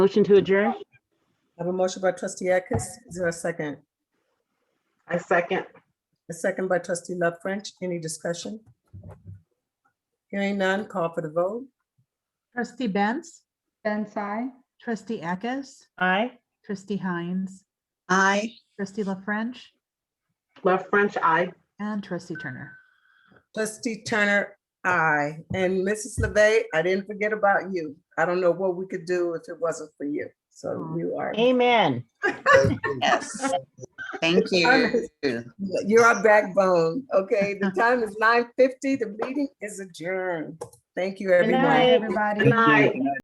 Motion to adjourn? I have a motion by trustee Atkins. Is there a second? I second. A second by trustee Love French. Any discussion? Hearing none, call for the vote. Trustee Benz, Benz, I. trustee Eckes, Aye. trustee Hines, Aye. trustee La French, Love French, aye. and trustee Turner. Trustee Turner, aye. And Mrs. LeVey, I didn't forget about you. I don't know what we could do if it wasn't for you. So you are, Amen. Yes. Thank you. you're our backbone. Okay, the time is nine fifty. The meeting is adjourned. Thank you, Good everyone. night. Everybody. Good night.